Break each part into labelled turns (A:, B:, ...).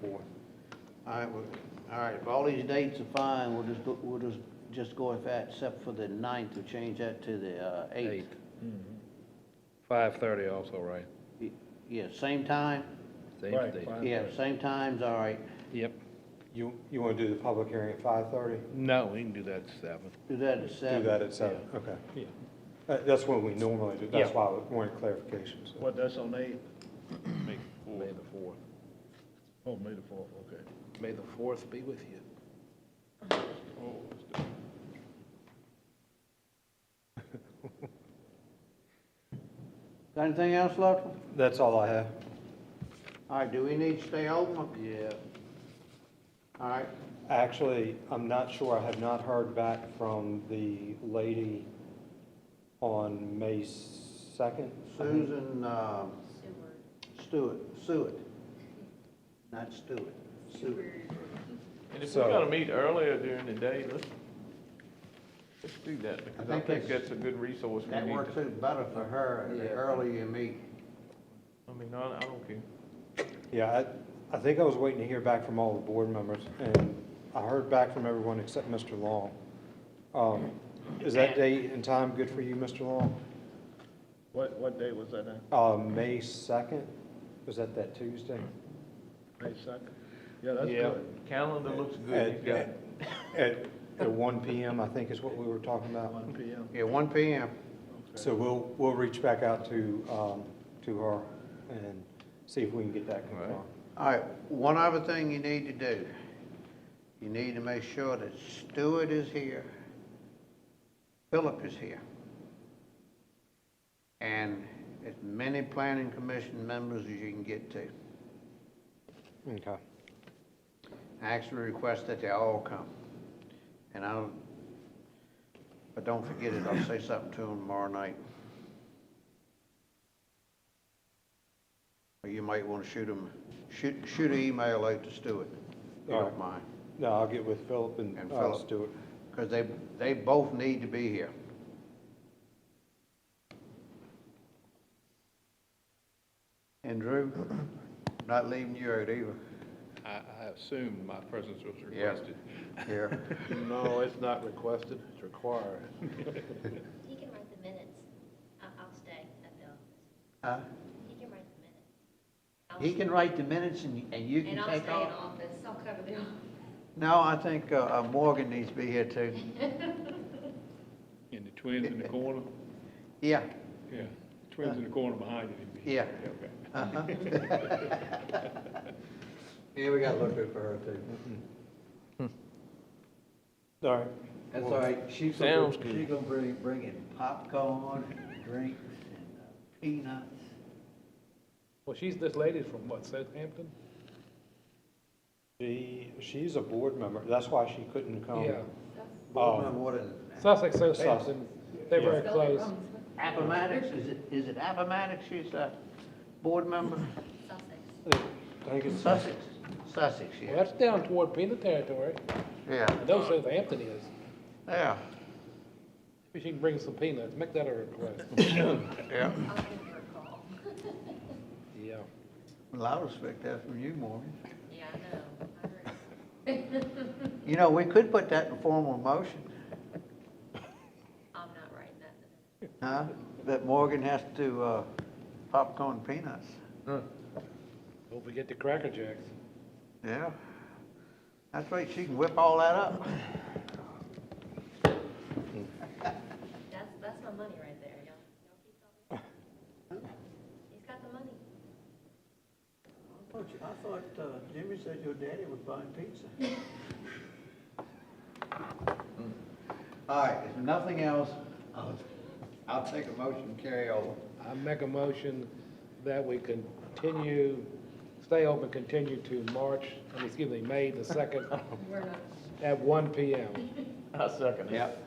A: fourth.
B: All right, well, all right, if all these dates are fine, we'll just go, we'll just, just go with that, except for the ninth, we'll change that to the, uh, eighth.
C: Five thirty also, right?
B: Y- Yeah, same time?
C: Same
D: Right,
C: day.
D: fine.
B: Yeah, same times, all right.
C: Yep.
A: You, you want to do the public hearing at five thirty?
C: No, we can do that seven.
B: Do that at
A: Do
B: seven.
A: that at seven, okay.
D: Yeah.
A: Uh, That's what we normally do, that's
C: Yeah.
A: why we wanted clarification, so.
D: What, that's on the eighth?
C: May the fourth.
D: Oh, May the fourth, okay.
C: May the fourth be with you.
E: Oh,
B: Got anything else, Luttrell?
A: That's all I have.
B: All right, do we need to stay open? Yeah. All right,
A: Actually, I'm not sure, I have not heard back from the lady on May second.
B: Susan, um, Stewart, Stewart, not Stewart, Stewart.
E: And if
A: So-
E: we're gonna meet earlier during the day, let's, let's do that, because I
B: think
E: think
B: that's-
E: that's a good resource we
B: That
E: need
B: works
E: to.
B: out better for her, the earlier you meet.
E: I mean, I, I don't care.
A: Yeah, I, I think I was waiting to hear back from all the board members, and I heard back from everyone except Mr. Long. Um, Is that date and time good for you, Mr. Long?
D: What, what day was that, now?
A: Uh, May second, was that that Tuesday?
D: May second? Yeah, that's
E: Yeah,
D: good.
E: calendar looks good,
A: At,
E: you got,
A: at, at- at one PM, I think is what we were talking about.
D: One P M.
B: Yeah, one P M.
A: So we'll, we'll reach back out to, um, to her and see if we can get that confirmed.
B: All right, one other thing you need to do, you need to make sure that Stewart is here, Philip is here, and as many planning commission members as you can get to.
A: Okay.
B: I actually request that they all come. And I'll, but don't forget it, I'll say something to them tomorrow night. Or you might want to shoot them, shoot, shoot an email out to Stewart, if you
A: All
B: don't
A: right.
B: mind.
A: No, I'll get with Philip
B: And
A: and uh,
B: Philip.
A: Stuart.
B: Because they, they both need to be here. And Drew, not leaving you out either,
C: I, I assumed my presence was
B: Yeah.
C: requested.
B: here.
E: no, it's not requested, it's required.
F: He can write the minutes. I- I'll stay at the office.
B: Huh?
F: He can write the minutes. I'll
B: He
F: stay.
B: can write the minutes and, and you can
F: And I'll stay in
B: take off.
F: office. I'll cover the office.
B: No, I think, uh, uh, Morgan needs to be here too.
C: And the twins in the corner?
B: Yeah,
C: Yeah, twins in the corner behind you.
B: yeah.
C: Okay.
B: uh-huh. Yeah, we gotta look out for her too.
A: All right.
G: That's all right, she's gonna,
E: Sounds
G: she's gonna bring, bring in popcorn, and drinks, and uh, peanuts.
C: Well, she's, this lady's from what, Southampton?
A: She, she's a board member, that's why she couldn't come.
C: Yeah.
A: Oh.
B: Board member, what is it?
C: Sussex,
A: Southampton.
C: They're
A: very
C: close.
B: Appomattox, is it, is it Appomattox she's a board member?
F: Sussex.
A: I think it's,
B: Sussex, Sussex,
H: Well,
B: yeah,
H: that's down toward Peanut territory.
B: yeah,
H: I know Southampton is.
B: yeah,
H: Maybe she can bring some peanuts. Make that a request.
B: yeah.
F: I'll give her a call.
H: Yeah.
B: Well, I respect that from you, Morgan.
F: Yeah, I know. I heard.
B: You know, we could put that in formal motion,
F: I'm not writing that.
B: huh? That Morgan has to, uh, popcorn peanuts,
H: Hope we get the Cracker Jacks.
B: yeah. That's right, she can whip all that up.
F: That's, that's my money right there, y'all. Y'all keep talking. He's got the money.
G: I thought, you- I thought uh, Jimmy said your daddy was buying pizza.
B: Mm. All right, if nothing else, I'll, I'll take a motion to carry over.
H: I make a motion that we continue, stay open, continue to March, I mean, excuse me, May the second
F: We're not.
H: at one P M.
E: I second it.
B: Yep.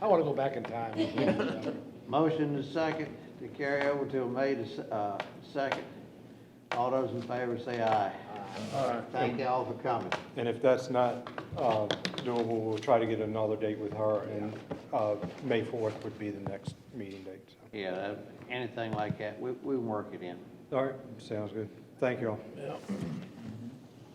H: I want to go back in time.
B: Motion is second to carry over till May the, s- uh, second. All those in favor say aye. Aye. Thank you all for coming.
A: and if that's not uh, doable, we'll try to get another date with her, and uh, May 4th would be the next meeting date. so.
B: Yeah, that- anything like that, we, we can work it in.
A: All right, sounds good. Thank you all.